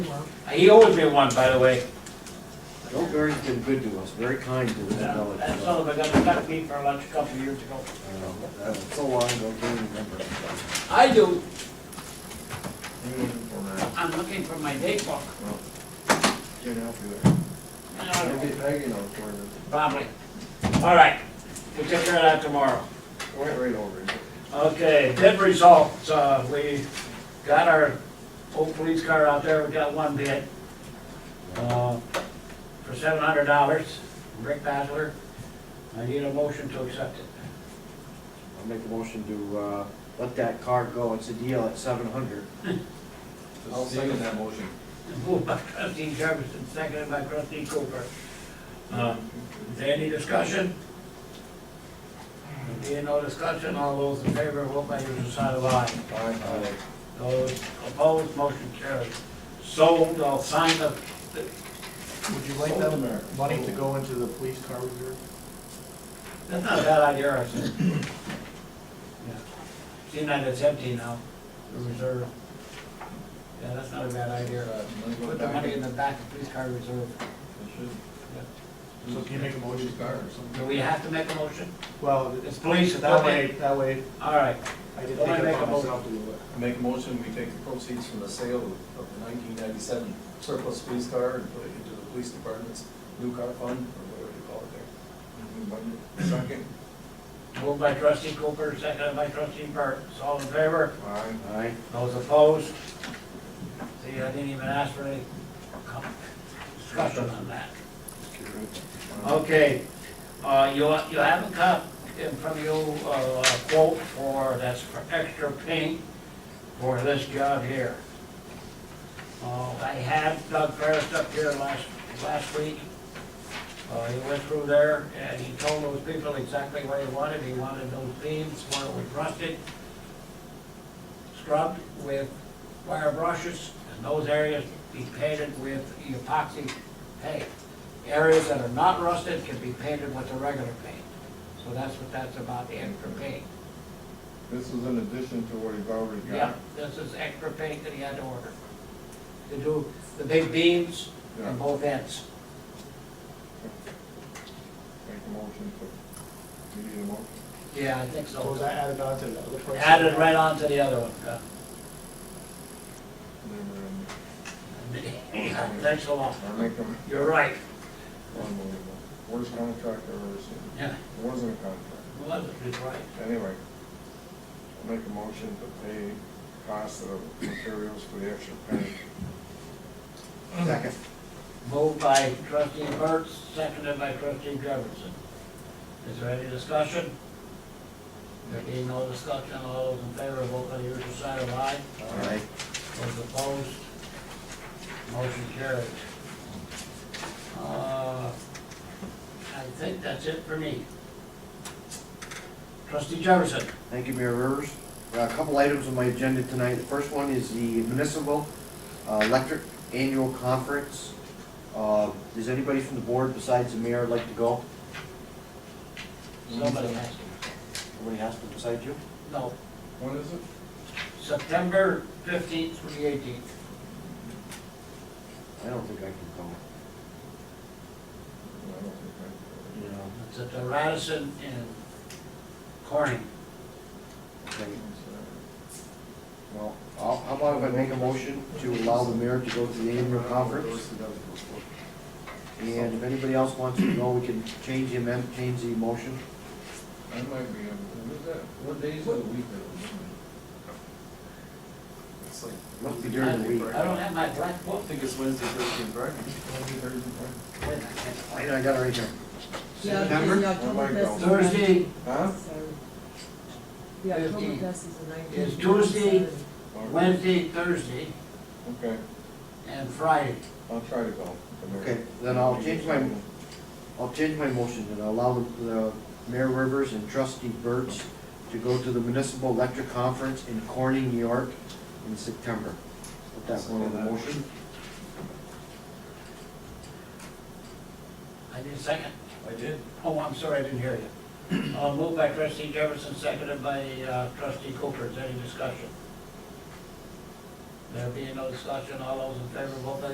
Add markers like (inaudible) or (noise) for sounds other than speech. He owes me one, by the way. Joe Barry's been good to us, very kind to the village. That son of a gun stuck me for lunch a couple of years ago. You know, that was Uh, So long ago, can't remember. I do. uh, I'm looking for my date book. Can't help you there. I don't know. Maybe Peggy knows where the, Probably. All right, we'll take care of that tomorrow. went right over it. Okay, bid results, uh, we got our old police car out there, we got one bid. uh, For seven hundred dollars, Rick Basler. I need a motion to accept it. I'll make a motion to, uh, let that car go, it's a deal at seven hundred. I'll second that motion. Moved by trustee Jefferson, seconded by trustee Cooper. Um, Is there any discussion? There being no discussion, all those in favor, vote by your side of aye. Aye. Those opposed, motion carries. Sold, I'll sign the, Would you like that money to go into the police car reserve? that's not a bad idea, I said. Yeah. Seeing that it's empty now, the reserve. Yeah, that's not a bad idea. uh, Put the money in the back of police car reserve. So can you make a motion? Police car or something? Do we have to make a motion? Well, It's police, it's that not way, me. that way, All right, I didn't Don't take I it make a upon motion? myself to do it. Make a motion, we take the proceeds from the sale of the nineteen ninety-seven surplus police car and put it into the police department's new car fund, or whatever you call it there. Second. moved by trustee Cooper, seconded by trustee Burns. All in favor? Aye. Aye. Those opposed? See, I didn't even ask for any com- discussion on that. Okay, uh, you, you haven't got in front of you uh, a quote for, that's for extra paint for this job here. Uh, I had Doug Ferris up here last, last week. Uh, he went through there and he told those people exactly what he wanted. He wanted those beams where it was rusted, scrubbed with wire brushes, and those areas be painted with epoxy paint. Areas that are not rusted can be painted with the regular paint. So that's what that's about, the extra paint. This is in addition to what he's already Yeah, got. this is extra paint that he had to order. To do the big beams Yeah. and both ends. Make a motion to, you need a motion? Yeah, I think So Oh, was so. that added on to the other price? Added right on to the other one. yeah. Never in Yeah, (laughs) Thanks a lot. I make them You're right. unbelievable. Worst contract I've ever seen. Yeah, It wasn't a contract. well, that's right. Anyway, I make a motion to pay cost of materials for the extra paint. Second. Moved by trustee Burns, seconded by trustee Jefferson. Is there any discussion? There being no discussion, all those in favor, vote by the usual sign of aye. Aye. Those opposed, motion carries. Uh, I think that's it for me. Trustee Jefferson, Thank you, Mayor Rivers. Uh, A couple items on my agenda tonight. The first one is the municipal uh, electric annual conference. Uh, Does anybody from the board besides the mayor like to go? somebody has to. Nobody has to besides you? No, When is it? September fifteenth through the eighteenth. I don't think I can go. I don't think You know, It's at the Radisson in Corning. okay. I- it's, Well, I'll- how about if I make a motion to allow the mayor to go to the annual conference? And if anybody else wants to go, we can change the amendment, change the motion. uh, I might be, able to- what is that, what days of the week are those? It's like, Must be during the week. I don't have my black I book. think it's Wednesday, Thursday, and Friday. Wednesday, Thursday, Friday? Wait a minute. Wait, I got it right here. Yeah, September? the Oktoberfest is Thursday, Huh? on- The Oktoberfest is the nineteenth. It's Tuesday. All right. Wednesday, Thursday, Okay, and Friday. I'll try to go. Okay, then I'll change my, I'll change my motion and allow the- the Mayor Rivers and trustee Burtz to go to the Municipal Electric Conference in Corning, New York in September. Put that one in the motion. I need a second. I did. Oh, I'm sorry, I didn't hear you. Uh, moved by trustee Jefferson, seconded by uh, trustee Cooper. Is there any discussion? There being no discussion, all those in favor, vote by